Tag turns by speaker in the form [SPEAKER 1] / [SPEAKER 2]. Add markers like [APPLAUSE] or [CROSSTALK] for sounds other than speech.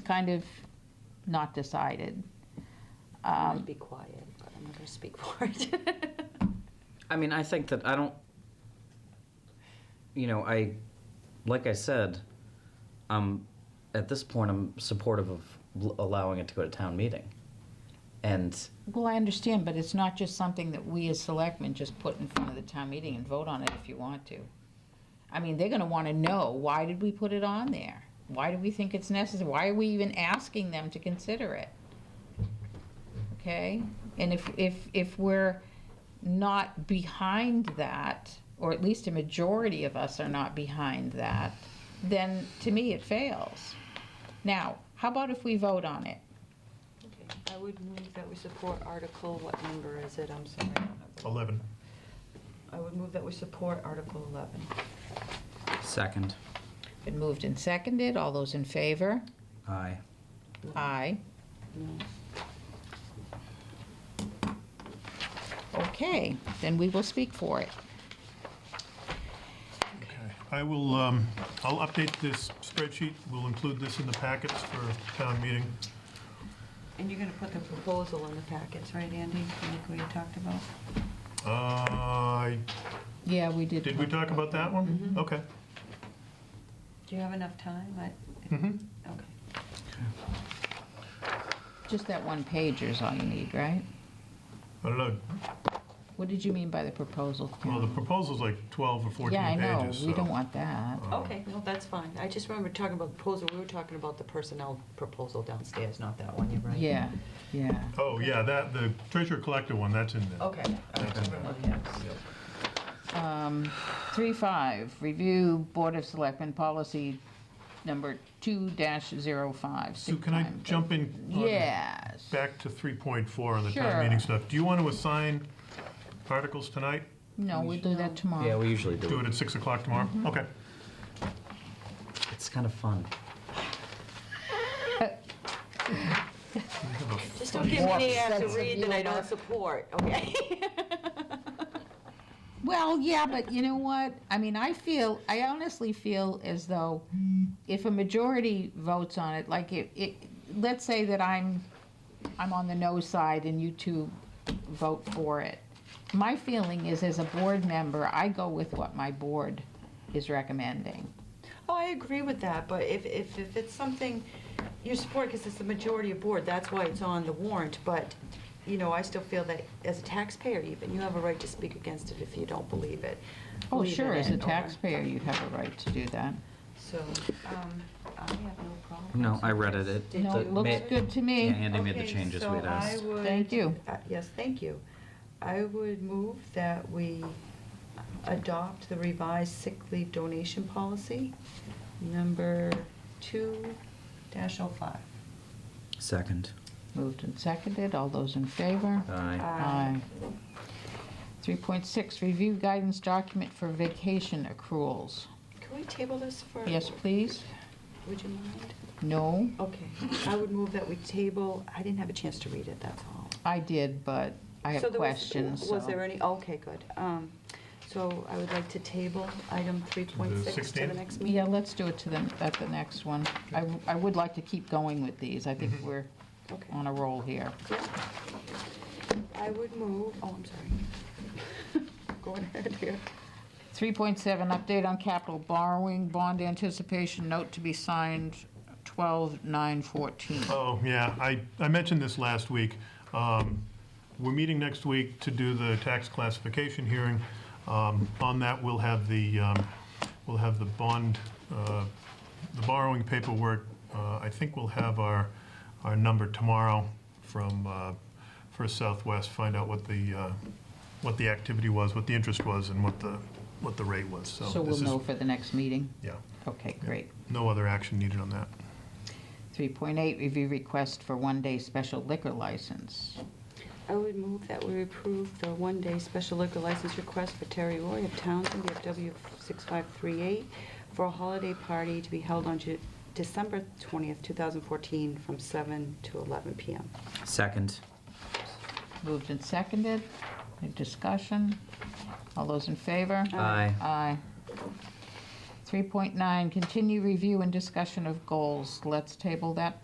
[SPEAKER 1] kind of not decided.
[SPEAKER 2] I might be quiet, but I'm not going to speak [LAUGHS] for it.
[SPEAKER 3] I mean, I think that I don't, you know, I, like I said, I'm, at this point, I'm supportive of l- allowing it to go to town meeting. And,
[SPEAKER 1] Well, I understand, but it's not just something that we as selectmen just put in front of the town meeting and vote on it if you want to. I mean, they're gonna wanna know, why did we put it on there? Why do we think it's necessary? Why are we even asking them to consider it? Okay, and if, if, if we're not behind that, or at least a majority of us are not behind that, then to me, it fails. Now, how about if we vote on it?
[SPEAKER 2] Okay, I would move that we support Article, what number is it? I'm sorry. I don't have it.
[SPEAKER 4] 11.
[SPEAKER 2] I would move that we support Article 11.
[SPEAKER 3] second,
[SPEAKER 1] Been moved and seconded, all those in favor?
[SPEAKER 3] aye.
[SPEAKER 1] Aye.
[SPEAKER 2] No.
[SPEAKER 1] Okay, then we will speak for it.
[SPEAKER 4] Okay. I will, um, I'll update this spreadsheet. We'll include this in the packets for town meeting.
[SPEAKER 2] And you're going to put the proposal in the packets, right, Andy? Like we had talked about?
[SPEAKER 4] Uh,
[SPEAKER 1] Yeah, we did.
[SPEAKER 4] Did we talk about that one?
[SPEAKER 1] Mm-hmm.
[SPEAKER 4] Okay.
[SPEAKER 2] Do you have enough time? I-
[SPEAKER 4] Mhm.
[SPEAKER 2] Okay.
[SPEAKER 1] Just that one pager is all you need, right?
[SPEAKER 4] I don't know.
[SPEAKER 1] What did you mean by the proposal? Karen?
[SPEAKER 4] Well, the proposal's like 12 or 14
[SPEAKER 1] Yeah, I
[SPEAKER 4] pages.
[SPEAKER 1] know, we
[SPEAKER 4] so-
[SPEAKER 1] don't want that.
[SPEAKER 2] Okay, no, that's fine. I just remember talking about the proposal, we were talking about the personnel proposal downstairs, not that one, you're right.
[SPEAKER 1] Yeah, yeah.
[SPEAKER 4] Oh, yeah, that, the treasurer collector one, that's in
[SPEAKER 1] Oh,
[SPEAKER 4] there.
[SPEAKER 2] Okay.
[SPEAKER 4] That's in there.
[SPEAKER 2] Okay.
[SPEAKER 1] Um, Three, five, review Board of Selectmen policy number two dash zero five.
[SPEAKER 4] So can I jump in? on-
[SPEAKER 1] Yes.
[SPEAKER 4] Back to 3.4 on the town
[SPEAKER 1] Sure.
[SPEAKER 4] meeting stuff. Do you want to assign articles tonight?
[SPEAKER 1] No, we'll do that tomorrow.
[SPEAKER 3] Yeah, we usually
[SPEAKER 4] Do
[SPEAKER 3] do
[SPEAKER 4] it
[SPEAKER 3] it.
[SPEAKER 4] at 6 o'clock tomorrow?
[SPEAKER 1] Mm-hmm.
[SPEAKER 4] Okay.
[SPEAKER 3] It's kind of fun.
[SPEAKER 4] We have a-
[SPEAKER 2] Just don't give me any to read that I don't support, okay? [LAUGHS]
[SPEAKER 1] Well, yeah, but you know what? I mean, I feel, I honestly feel as though if a majority votes on it, like it, it, let's say that I'm, I'm on the no side and you two vote for it. My feeling is, as a board member, I go with what my board is recommending.
[SPEAKER 2] Oh, I agree with that, but if, if, if it's something you support, because it's the majority of board, that's why it's on the warrant, but, you know, I still feel that as a taxpayer even, you have a right to speak against it if you don't believe it.
[SPEAKER 1] Oh,
[SPEAKER 2] Leave it
[SPEAKER 1] sure, as a
[SPEAKER 2] in, or-
[SPEAKER 1] taxpayer, you have a right to do that.
[SPEAKER 2] So, um, I have no problem.
[SPEAKER 3] No, I read it. It-
[SPEAKER 2] Did
[SPEAKER 1] No,
[SPEAKER 2] you-
[SPEAKER 3] the-
[SPEAKER 1] it looks
[SPEAKER 3] ma-
[SPEAKER 1] good to me.
[SPEAKER 3] Yeah, Andy made the
[SPEAKER 2] Okay,
[SPEAKER 3] changes
[SPEAKER 2] so
[SPEAKER 3] we had
[SPEAKER 2] I
[SPEAKER 3] asked.
[SPEAKER 2] would-
[SPEAKER 1] Thank you.
[SPEAKER 2] uh, Yes, thank you. I would move that we adopt the revised sick leave donation policy, number two dash oh five.
[SPEAKER 3] Second,
[SPEAKER 1] Moved and seconded, all those in favor?
[SPEAKER 3] aye.
[SPEAKER 1] Aye. 3.6, review guidance document for vacation accruals.
[SPEAKER 2] Can we table this for?
[SPEAKER 1] Yes, please?
[SPEAKER 2] Would you mind?
[SPEAKER 1] No,
[SPEAKER 2] Okay, I would move that we table, I didn't have a chance to read it, that's all.
[SPEAKER 1] I did, but I
[SPEAKER 2] So
[SPEAKER 1] have
[SPEAKER 2] there was-
[SPEAKER 1] questions,
[SPEAKER 2] Was
[SPEAKER 1] so-
[SPEAKER 2] there any, okay, good. Um, So I would like to table item 3.6 to the
[SPEAKER 4] 16th?
[SPEAKER 2] next
[SPEAKER 1] Yeah,
[SPEAKER 2] meeting.
[SPEAKER 1] let's do it to them at the next one. I, w- I would like to keep going with these. I
[SPEAKER 4] Mm-hmm.
[SPEAKER 1] think we're
[SPEAKER 2] Okay.
[SPEAKER 1] on a roll here.
[SPEAKER 2] Yeah. I would move, oh, I'm sorry. [LAUGHS] Go ahead here.
[SPEAKER 1] 3.7, update on capital borrowing, bond anticipation note to be signed 12/9/14.
[SPEAKER 4] Oh, yeah, I, I mentioned this last week. Um, We're meeting next week to do the tax classification hearing. Um, On that, we'll have the, um, we'll have the bond, uh, the borrowing paperwork. Uh, I think we'll have our, our number tomorrow from uh, First Southwest, find out what the, uh, what the activity was, what the interest was, and what the, what the rate was, so.
[SPEAKER 1] So we'll
[SPEAKER 4] this is-
[SPEAKER 1] know for the next meeting?
[SPEAKER 4] Yeah,
[SPEAKER 1] Okay, great.
[SPEAKER 4] no other action needed on that.
[SPEAKER 1] 3.8, review request for one-day special liquor license.
[SPEAKER 2] I would move that we approve the one-day special liquor license request for Terry Roy of Townsend, BFW 6538, for a holiday party to be held on Ju- December 20th, 2014, from 7 to 11 PM.
[SPEAKER 3] Second,
[SPEAKER 1] Moved and seconded. Any discussion? All those in favor?
[SPEAKER 3] aye.
[SPEAKER 1] Aye. 3.9, continue review and discussion of goals. Let's table that